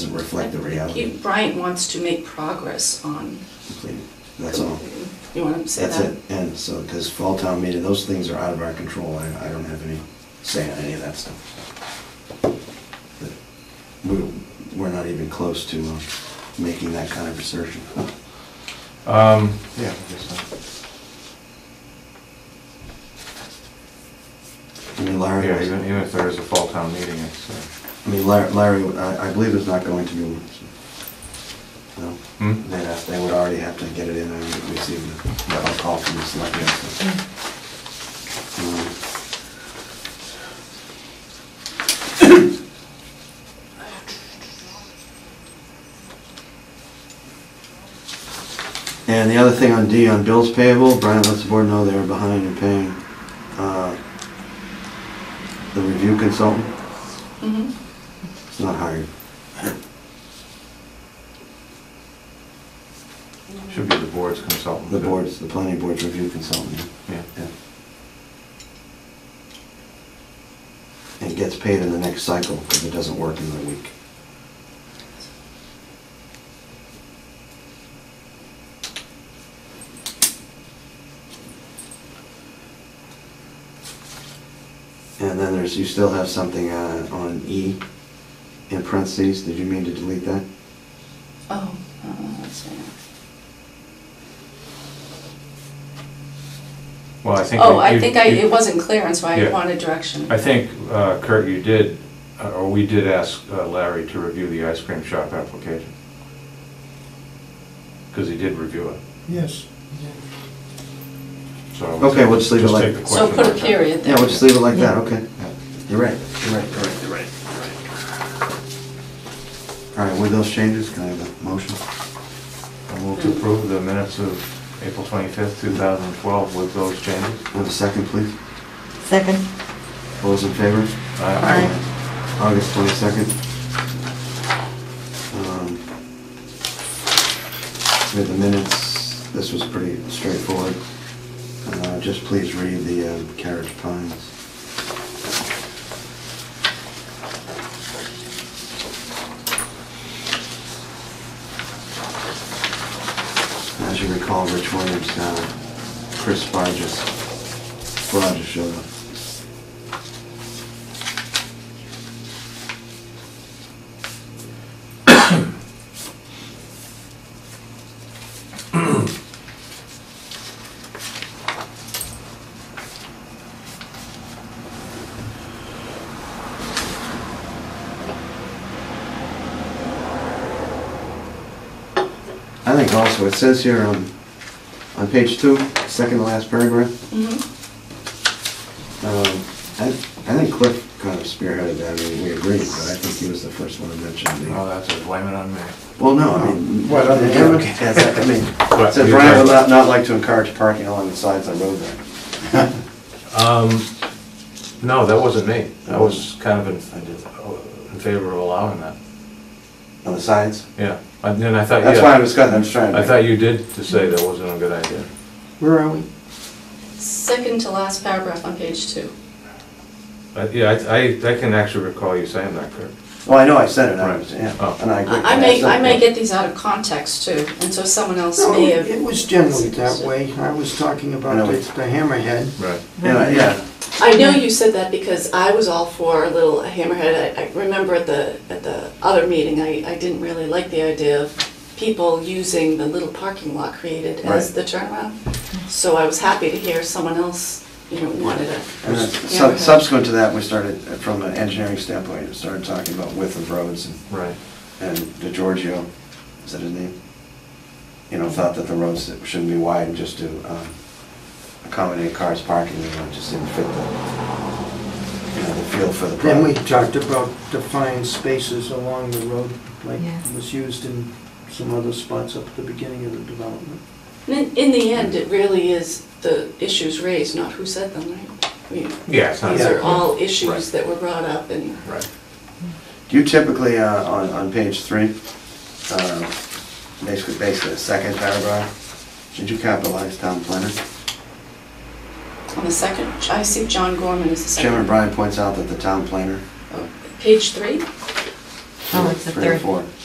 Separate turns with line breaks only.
doesn't reflect the reality
He- Bryant wants to make progress on,
completely. That's all.
you want to say
That's
that?
it. And so, because fall town meeting, those things are out of our control. I, I don't have any say on any of that stuff. But We, we're not even close to uh, making that kind of assertion.
Um, yeah, I guess
I mean,
so.
Larry,
Yeah, even, even if there is a fall town meeting, it's, uh,
I mean, Larry, Larry, I, I believe there's not going to be one. so. No?
hmm?
They'd have, they would already have to get it in and receive the, a call from the selectmen. so. Um, And the other thing on D, on bills payable, Brian lets the board know they're behind in paying, uh, the review consultant,
Mhm.
it's not hired.
Should be the board's consultant.
The board's, the planning board's review consultant.
Yeah.
Yeah. And gets paid in the next cycle, because it doesn't work in the week. And then there's, you still have something uh, on E in parentheses, did you mean to delete that?
Oh, uh, that's it.
Well, I think.
Oh,
that
I
you-
think I,
you-
it wasn't clear, and so I
Yeah.
wanted direction.
I think, uh, Kurt, you did, uh, or we did ask uh, Larry to review the ice cream shop application. Because he did review it,
Yes.
so.
Okay, we'll just leave it like-
take the
So
question
put a
out.
period
Yeah,
there.
we'll just leave it like that, okay.
Yeah.
You're right, you're right, you're right, you're right. All right, with those changes, can I have a motion?
I move to approve the minutes of April 25th, 2012 with those changes.
With a second, please?
Second.
All those in favor?
Aye.
August 22nd. Um, With the minutes, this was pretty straightforward. Uh, Just please read the uh, carriage pines. As you recall, Rich Williams, uh, Chris Barges, Barges showed up. I think also, it says here on, on page two, second to last paragraph,
Mhm.
um, I, I think Cliff kind of spearheaded that, I mean, we agreed, but I think he was the first one to mention
Oh,
the.
that's a blame it on me.
Well, no, I mean,
What other-
yeah, okay, that's- I mean, it said
you're
Brian would
right.
not, not like to encourage parking along the sides of the road there.
Um, no, that wasn't me. I was kind of uh, in, in favor of allowing that.
On the sides?
Yeah, and then I thought,
That's why I
Uh, yeah,
was, kinda- I'm just trying to.
I thought you did to say that wasn't a good idea.
Where are we?
Second to last paragraph on page two.
But, yeah, I, I I can actually recall you saying that, Kurt.
Well, I know I said it, I
Right.
was, yeah,
Oh.
and I agree.
I I may, I may
Yeah.
get these out of context too, and so someone else
No,
may
it
have,
it was generally that way. I was talking
No,
about the
it-
the hammerhead.
Right.
Yeah, yeah,
I know you said that because I was all for a little hammerhead. I, I remember at the, at the other meeting, I, I didn't really like the idea of people using the little parking lot created as
Right.
the turnaround. So I was happy to hear someone else, you know, wanted it.
And then
Yeah.
sub- Subsequent to that, we started, uh, from an engineering standpoint, we started talking about width of roads and
Right.
and DeGiorgio, is that his name? You know, thought that the roads that shouldn't be widened just to um, accommodate cars parking, you know, it just didn't fit the, you know, the feel for the
Then we
problem.
talked about defined spaces along the road, like
Yeah.
was used in some other spots up at the beginning of the development.
In, in the end, it really is the issues raised, not who said them, right? I mean,
Yeah, it's not.
These are all
Right.
issues that were brought up and
Right.
Do you typically, uh, on, on page three, uh, basically, basically the second paragraph, should you capitalize town planner?
on the second, I see John Gorman is the second.
Chairman Brian points out that the town planner.
Oh, Page three?
Oh, it's the
Three or
third.
four.